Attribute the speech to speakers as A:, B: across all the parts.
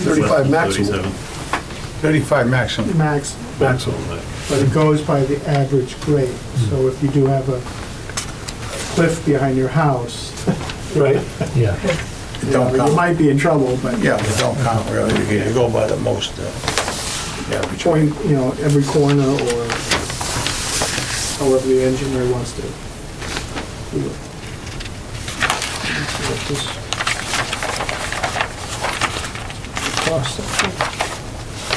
A: 35 maximum.
B: 37.
C: 35 maximum.
D: max,
C: Maximum.
D: but it goes by the average grade.
A: Hmm.
D: So if you do have a cliff behind your house,
C: Right.
E: Yeah,
C: It don't
D: you
C: count.
D: might be in trouble, but
C: Yeah, it don't count really. You can- You go by the most, uh, average.
D: point, you know, every corner or however the engineer wants to. do it. Let's see what this Cross section.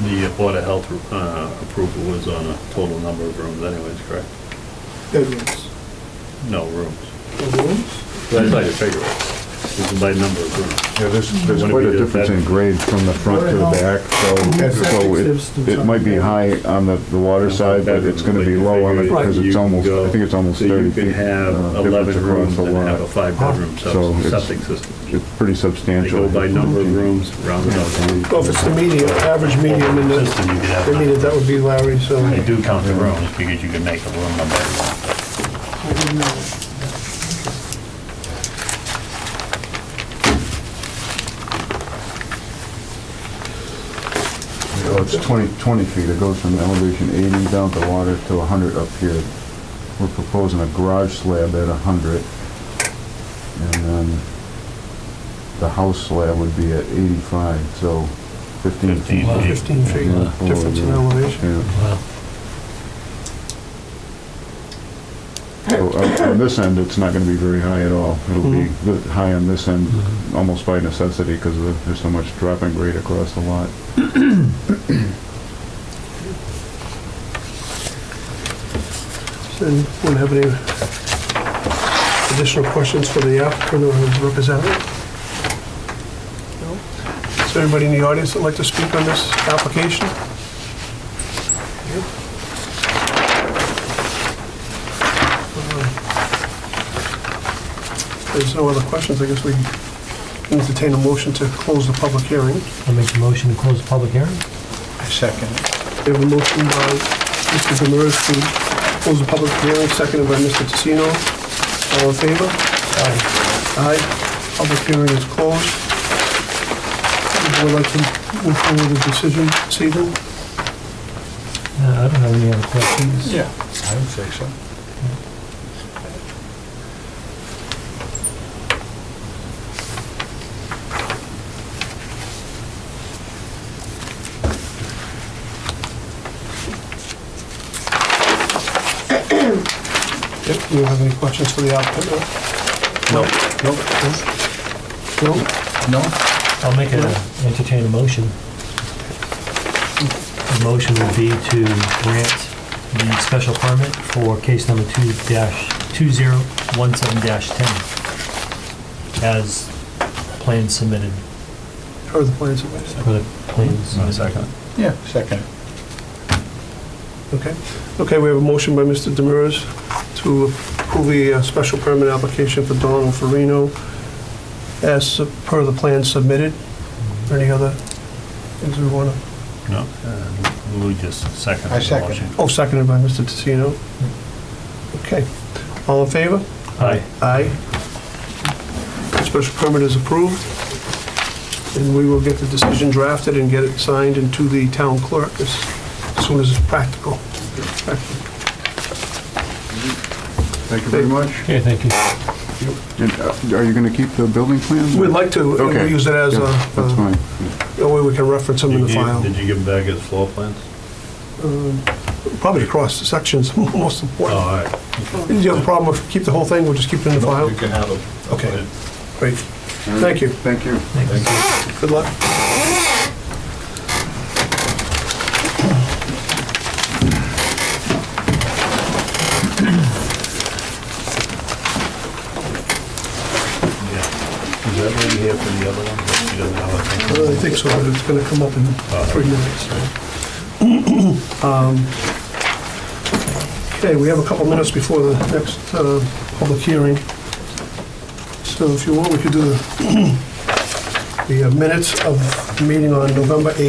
B: The Board of Health uh, approval was on a total number of rooms anyways, correct?
D: Bedrooms.
B: No rooms.
D: The rooms?
B: That's how you figure it. This is by number of rooms.
F: Yeah, there's, there's
B: Wouldn't
F: quite
B: it
F: a
B: be
F: difference in
B: that-
F: grade from the front to the back,
D: Yeah,
F: so, so
D: septic
F: it, it might be high on the, the water side, but it's gonna be low on it, because
B: You
F: it's
B: can
F: almost,
B: go-
F: I think it's almost
B: so
F: thirty
B: You can
F: feet.
B: have
F: uh,
B: 11
F: difference across
B: rooms
F: the
B: and have a
F: lot.
B: five-bedroom
F: So
B: sep-
F: it's-
B: septic system.
F: It's pretty
B: They
F: substantial.
B: go by number of rooms, rounded out. to-
A: Well, if it's the median, average medium in the,
B: System, you could
A: I mean,
B: have,
A: that would be Larry, so.
B: they do count the rooms because you can make a room a bedroom.
D: I didn't know.
F: Oh, It's 20, 20 feet, it goes from elevation 80 down to water to 100 up here. We're proposing a garage slab at 100, and then the house slab would be at 85, so 15
B: 15
F: feet.
B: feet.
A: 15 feet
F: Yeah, forward,
A: difference in
F: yeah.
A: elevation.
F: Yeah.
E: wow.
F: So up On this end, it's not going to be very high at all. It'll be the- high on this end, almost by necessity, because there's so much dropping grade across the lot.
A: And wouldn't have any additional questions for the applicant or his representative? No? Is there anybody in the audience that'd like to speak on this application? Uh, If There's no other questions, I guess we entertain a motion to close the public hearing.
E: I'll make a motion to close the public hearing.
C: Second.
A: We have a motion by Mr. Demers to close the public hearing, seconded by Mr. Tassino. All in favor? Aye. Aye. Public hearing is closed. Would you like to move forward with the decision this evening?
E: Uh, I don't have any other questions.
C: Yeah, I would say so.
A: Yep, do you have any questions for the applicant?
C: No, no,
A: No?
C: no.
E: I'll make a, entertain a motion. The motion would be to grant the special permit for case number two dash, two zero one seven dash ten as plans submitted,
A: Heard the plans of ways.
E: for the plans.
B: One second.
C: Yeah, second.
A: Okay. Okay, we have a motion by Mr. Demers to approve the uh, special permit application for Donald Farino as per the plan submitted. Any other things we want to,
B: No, uh, Lou just seconded
C: I
B: the
C: second
B: motion.
A: oh, seconded by Mr. Tassino. Okay. All in favor?
E: Aye.
A: Aye. Special permit is approved, and we will get the decision drafted and get it signed and to the town clerk as soon as it's practical.
F: Thank you very much.
E: Okay, thank you.
F: And, uh, Are you going to keep the building plan?
A: We'd like uh, to, uh,
F: Okay.
A: we use it as a,
F: Yeah, That's
A: a
F: fine.
A: way we can reference them in
B: Did
A: the
B: you-
A: file.
B: Did you give back his floor plans?
A: Probably across the sections, most
B: Oh,
A: important.
B: all right.
A: Do you have a problem if we keep the whole thing, we'll just keep it in the file?
C: You can have a.
A: Okay, great. Thank you.
F: Thank you.
A: Good luck.
B: Is that lady here for the other one? She doesn't have a
A: I
B: thing.
A: think so, but it's gonna come up in three minutes. Um, Okay, we have a couple minutes before the next uh, public hearing. So if you want, we could do the the uh, minutes of the meeting on November 8th.